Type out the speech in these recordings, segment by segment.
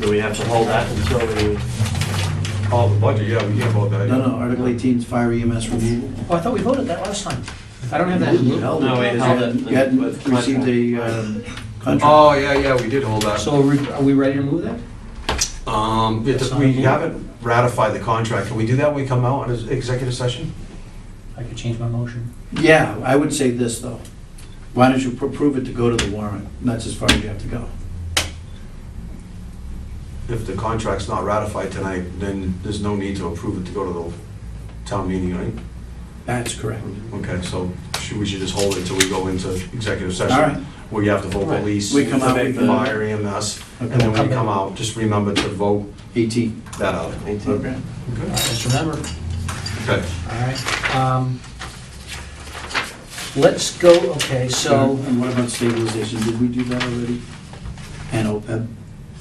Do we have to hold that until we call the budget? Oh, Yeah, we hear about that. No, no, Article 18 is fire EMS removal. Mm-hmm. Oh, I thought we voted that last time. I don't have that. in blue. Held it. No, we held it. You hadn't With received a um, contract. Oh, yeah, yeah, we did hold that. uh, So are we- are we ready to move that? Um, yeah, just- we haven't ratified the contract. Can we do that when we come out on an executive session? I could change my motion. Yeah, I would say this, though. Why don't you pr- prove it to go to the warrant? And That's as far as you have to go. If the contract's not ratified tonight, then there's no need to approve it to go to the town meeting, right? That's correct. Okay, so should- we should just hold it until we go into executive session? All right. Where you have to vote All right. police, We come out, we can- fire, EMS, and Okay. then when you come out, just remember to vote 18. that article. Okay. All right, Just remember, Okay. all right. um, Let's go, okay, so, And what about stabilization? Did we do that already? And OPEB?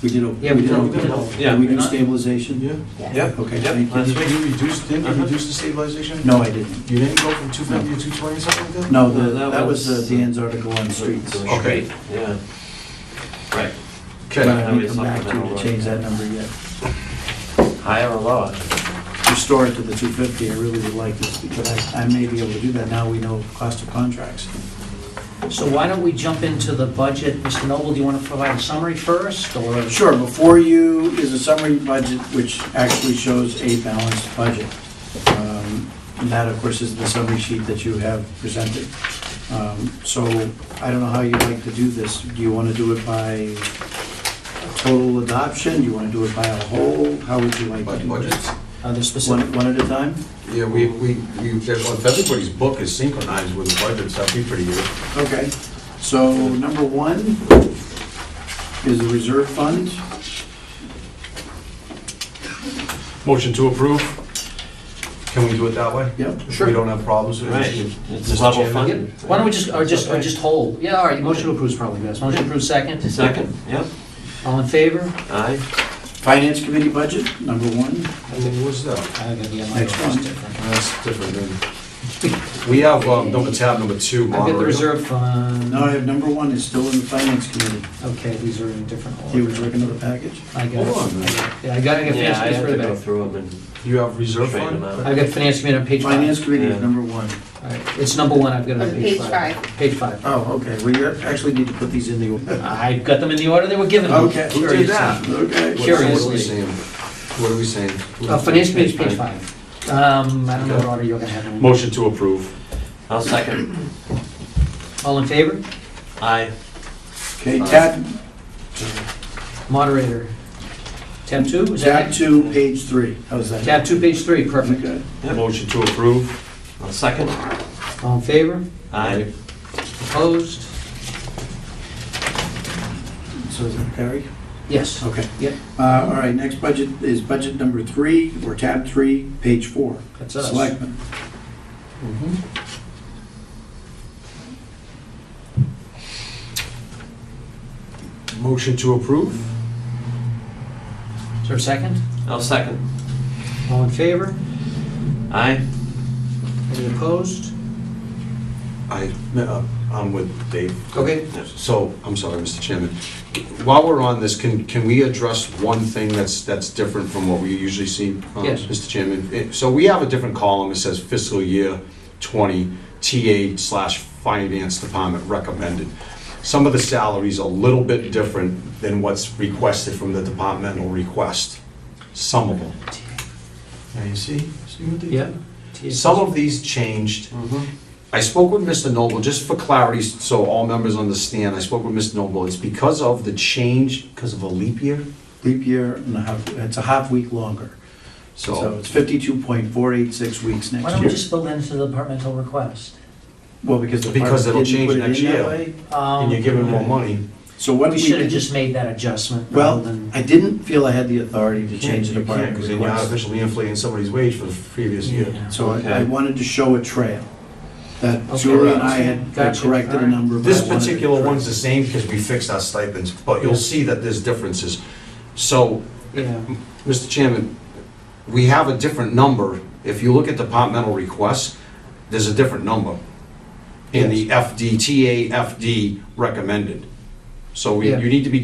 We did OPEB. yeah, we did, don't- we did. Yeah, Did we we're do not- stabilization? Yeah? Yes. Yeah. Okay, Yep, thank that's you. Did you reduce, did you Uh-huh. reduce the stabilization? No, I didn't. You didn't go from 250 to 220 or something like that? No, No, the- that that was was- uh, Dan's article on streets. The But Okay. street, Yeah. Right, I Okay, haven't come back to you to change that number yet. higher or lower? Restore it to the 250, I really would like this, because I I may be able to do that. Now we know cost of contracts. So why don't we jump into the budget? Mr. Noble, do you want to provide a summary first, or? Sure, before you is a summary budget, which actually shows a balanced budget. Um, And that, of course, is the summary sheet that you have presented. Um, So I don't know how you'd like to do this. Do you want to do it by total adoption? Do you want to do it by a whole? How would you like to Budget- do it? budgets. Uh, the specific, One one at a time? Yeah, we, we, we, if everybody's book is synchronized with the budgets, that'd be pretty good. Okay, so number one is the reserve fund. Motion to approve. Can we do it that way? Yep. We don't have problems with Right, it? it's level Chairman? Yeah, funded. why don't we just, or just, or Okay. just hold? Yeah, all right, motion to approve is probably best. Motion to approve second. Second, yep, All in favor? aye, Finance committee budget, number one. And then what's that? I'm gonna be on my Next own. one. That's different then. We have, um, number tab, number two, I've got the moderator. reserve fund. No, I have number one is still in the finance committee. Okay, these are in a different You would order. work another package? I got, Hold on a minute. it. yeah, I got, I got yeah, finance I have to committee go right back. through them and You have reserve straighten them fund? out. I've got finance committee on page five. Finance committee Yeah. is number one. All right, It's number one, I've got it on On page page five. Page five. Oh, okay, we actually need to put these in the order. I got them in the order they were given. Okay. Who did that? What- Okay. What are we Curiously. saying? What are we saying? Uh, finance committee, page five. Um, I don't know what order you're gonna have them. in. Motion to approve. I'll second, All in favor? aye, Okay, Uh, tab, Moderator. Tab two, is that tab right? two, page three. How's that? Tab two, page three, perfect. Okay. Yep. Motion to approve. I'll second, All in favor? aye, Opposed? So is that Perry? Yes. Okay. Yep. Uh, All right, next budget is budget number three, or tab three, page four. That's us. Selectmen. Motion to approve? Is there a second? I'll second, All in favor? aye, Any opposed? I, uh, I'm with Dave. Okay. So, I'm sorry, Mr. Chairman. While we're on this, can, can we address one thing that's, that's different from what we usually see? uh, Yes. Mr. Chairman, It- so we have a different column that says fiscal year 20 TA slash finance department recommended. Some of the salaries are a little bit different than what's requested from the departmental request, some of them. Now, you see, see what they did? Yeah. Some of these changed. Mm-hmm. I spoke with Mr. Noble, just for clarity, so all members understand, I spoke with Mr. Noble, it's because of the change, because of a leap year, Leap year and a half, it's a half week longer. So so. it's 52.486 weeks Why next don't we year. just build that into the departmental request? Well, because the Because it'll department didn't change put it next in that year. way. Um, And you're giving more money. So what We we should have did, just made that adjustment rather well, than, I didn't feel I had the authority to change the You can't, department because then you're request. artificially inflating somebody's wage for the previous year. So I I Okay. wanted to show a trail, that Okay. Julie and I had had Gotcha. corrected a Alright. number. but This I wanted to particular correct- one's the same because we fixed our stipends, but you'll see that there's differences. So, yeah. Mr. Chairman, we have a different number. If you look at departmental requests, there's a different number in the FD, TA FD recommended. So we- Yeah. you need to be